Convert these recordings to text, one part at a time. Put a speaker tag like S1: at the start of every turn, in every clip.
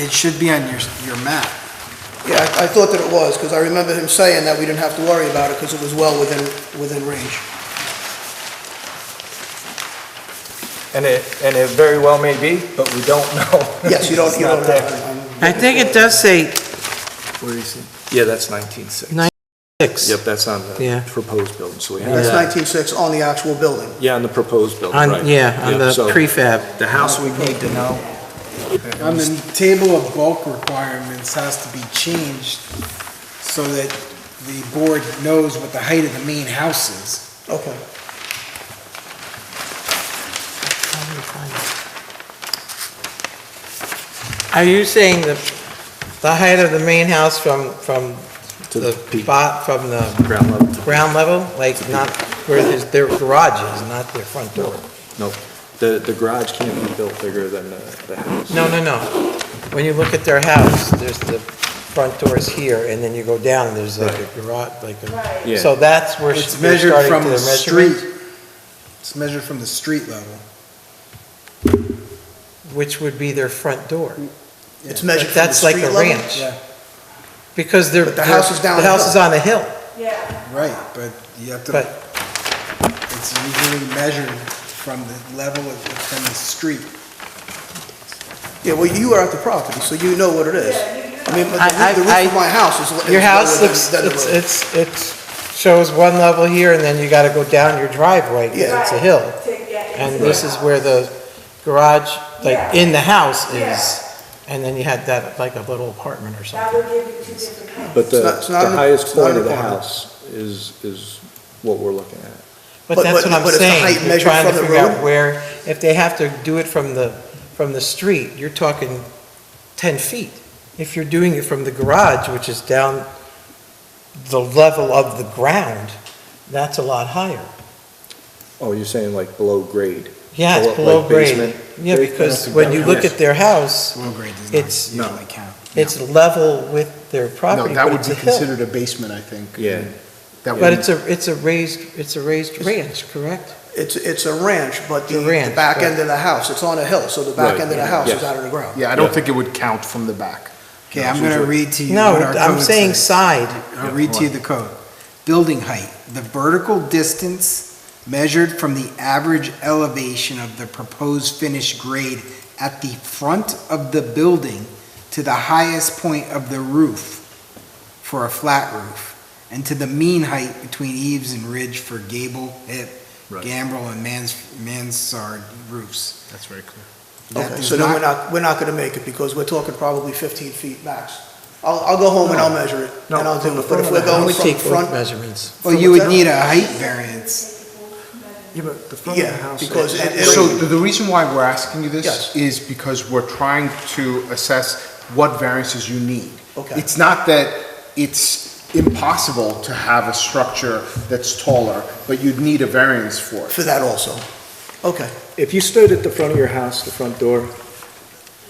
S1: it should be on your, your map.
S2: Yeah, I I thought that it was, because I remember him saying that we didn't have to worry about it, because it was well within, within range.
S3: And it, and it very well may be, but we don't know.
S2: Yes, you don't,
S3: It's
S2: you
S3: not
S2: don't
S3: there.
S2: have...
S4: I think it does say
S3: Where is it? Yeah, that's 19.6.
S4: six.
S3: Yep, that's on
S4: Yeah.
S3: the proposed building, so we have,
S2: That's
S4: Yeah.
S2: 19.6 on the actual building.
S3: yeah, on the proposed building, right.
S4: On, yeah, on the
S3: so
S4: prefab.
S3: The house we need to know,
S1: On the table of bulk requirements has to be changed so that the board knows what the height of the main house is.
S2: Okay.
S4: Are you saying the, the height of the main house from, from
S3: to
S4: the
S3: the peak
S4: spot, from the
S3: ground level.
S4: ground level? Like not where there's their garage is, not their front door?
S3: The, the garage can't be built bigger than the, the house.
S4: No, no, no. When you look at their house, there's the front door's here, and then you go down, and there's like a garage, like
S3: Yeah.
S4: a, so that's where
S1: It's
S4: you're
S1: measured
S4: starting
S1: from
S4: to
S1: the
S4: measurement?
S1: street. It's measured from the street level.
S4: Which would be their front door.
S2: It's
S1: Yeah.
S2: measured from the
S4: But that's like
S2: street
S4: a
S2: level?
S4: ranch.
S1: Yeah,
S4: Because they're.
S2: But the house is down
S4: The
S2: the
S4: house
S2: hill.
S4: is on a hill,
S5: Yeah,
S1: right, but you have to,
S4: but
S1: it's usually measured from the level of, from the street.
S2: Yeah, well, you are at the property, so you know what it is. I mean, but
S4: I- I-
S2: the roo- the roof of
S4: I-
S2: my house is... is
S4: your
S2: lower
S4: house
S2: than-
S4: looks,
S2: than the
S4: it's,
S2: road.
S4: it's, it's, shows one level here, and then you gotta go down your driveway, 'cause
S2: Yeah.
S4: it's a hill.
S5: to get into
S4: And
S5: the
S4: this is
S5: house.
S4: where the garage, like,
S5: Yeah.
S4: in the house
S5: Yeah.
S4: is, and then you had that, like, a little apartment or
S5: That
S4: something.
S5: would give you two different kinds.
S3: But the,
S2: It's not- it's not
S3: the
S2: an-
S3: highest
S2: it's not
S3: point
S2: an
S3: of the
S2: apartment.
S3: house is, is what we're looking at.
S4: But
S2: But-
S4: that's
S2: but-
S4: what I'm
S2: but is the height
S4: saying, you're
S2: measured
S4: trying to
S2: from the
S4: figure out
S2: road?
S4: where, if they have to do it from the, from the street, you're talking ten feet. If you're doing it from the garage, which is down the level of the ground, that's a lot higher.
S3: Oh, you're saying like below grade?
S4: Yeah, it's
S3: Below-
S4: below
S3: like
S4: grade.
S3: basement?
S4: Yeah, because
S3: Basement.
S4: when you look
S3: Yes.
S4: at their house,
S1: Low grade does
S4: It's-
S1: not usually count.
S4: it's level with their property, but it's a hill.
S6: a basement, I think.
S3: Yeah.
S6: That
S4: But it's a, it's a raised, it's a raised ranch, correct?
S2: It's, it's a ranch, but the
S4: The
S2: the
S4: ranch,
S2: back
S4: right.
S2: end of the house, it's on a hill, so the back
S3: Right,
S2: end of the
S3: yeah,
S2: house is
S3: yeah.
S2: out of the ground.
S6: Yeah, I
S3: Yeah.
S6: don't think it would count from the back.
S1: Okay, I'm gonna read to you
S4: No,
S1: what our
S4: I'm
S1: code
S4: saying
S1: says.
S4: side.
S1: I'll read to you the code. Building height, the vertical distance measured from the average elevation of the proposed finished grade at the front of the building to the highest point of the roof for a flat roof, and to the mean height between eaves and ridge for gable, hip,
S3: Right.
S1: gambrel, and mans, mansard roofs.
S6: That's very clear.
S1: That
S2: Okay,
S1: does
S2: so then we're not, we're not gonna make it, because we're talking probably 15 feet max. I'll, I'll go home and I'll measure it,
S3: No,
S2: and I'll
S3: from
S2: do
S3: the
S2: it, but
S3: front
S2: if
S3: of
S2: we're
S3: the
S4: I
S2: going
S4: would
S2: from
S4: take both
S2: front,
S4: measurements.
S1: Well,
S2: from
S1: you would
S2: whatever-
S1: need a height variance.
S3: Yeah, but the front of the
S2: yeah,
S3: house.
S2: because it-
S6: So
S2: it'll,
S6: the the reason why we're asking you
S2: Yes.
S6: this is because we're trying to assess what variances you need.
S2: Okay.
S6: It's not that it's impossible to have a structure that's taller, but you'd need a variance for it.
S2: for that also. Okay,
S3: If you stood at the front of your house, the front door,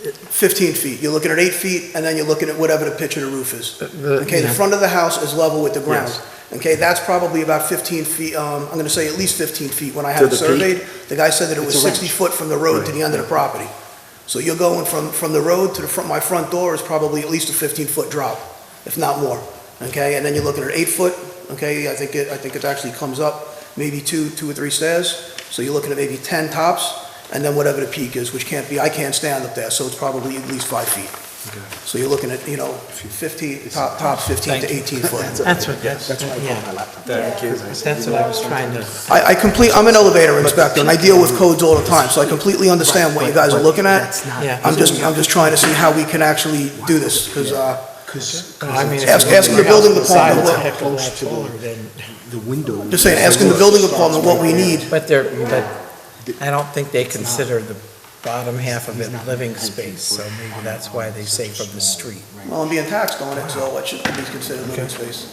S2: 15 feet, you're looking at eight feet, and then you're looking at whatever the pitch of the roof is. Okay, the
S4: yeah.
S2: front of the house is level with the ground.
S3: Yes.
S2: Okay, that's probably about 15 feet, um, I'm gonna say at least 15 feet. When I
S3: To
S2: had it
S3: the peak?
S2: surveyed, the guy said that it was
S3: It's a ranch.
S2: 60 foot from the road to
S3: Right.
S2: the end of the property. So you're going from, from the road to the front, my front door is probably at least a 15-foot drop, if not more. Okay, and then you're looking at eight foot, okay, I think it, I think it actually comes up maybe two, two or three stairs. So you're looking at maybe 10 tops, and then whatever the peak is, which can't be, I can't stand up there, so it's probably at least five feet. So you're looking at, you know, 15, top, top 15 to 18 foot.
S4: That's what, that's, yeah,
S3: thank you.
S4: but that's what I was trying to.
S2: I, I complete, I'm an elevator inspector, and I deal with codes all the time, so I completely understand what you guys are looking at.
S4: Yeah.
S2: I'm just, I'm just trying to see how we can actually do this, because, uh,
S4: I mean, if
S2: Ask-
S4: you
S2: ask
S4: look
S2: the
S4: at
S2: building
S4: the sides,
S2: department
S4: it's a
S2: what-
S4: heck of a lot taller than-
S2: just saying, asking the building department what we need.
S4: But they're, but I don't think they consider the bottom half of it living space, so maybe that's why they say from the street.
S2: Well, I'm being taxed on it, so it should be considered living space.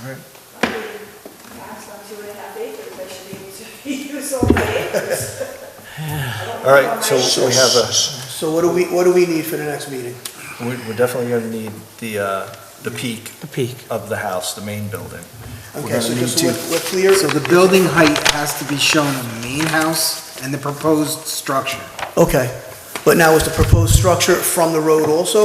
S5: Perhaps not two and a half acres, I should be able to use all my acres.
S3: All right, so we have a,
S2: So what do we, what do we need for the next meeting?
S3: we- we're definitely gonna need the, uh, the peak
S4: The peak.
S3: of the house, the main building.
S2: Okay, so
S1: gonna
S2: just so
S1: need
S2: we're- we're clear,
S1: So the building height has to be shown on the main house and the proposed structure.
S2: okay. But now is the proposed structure from the road also,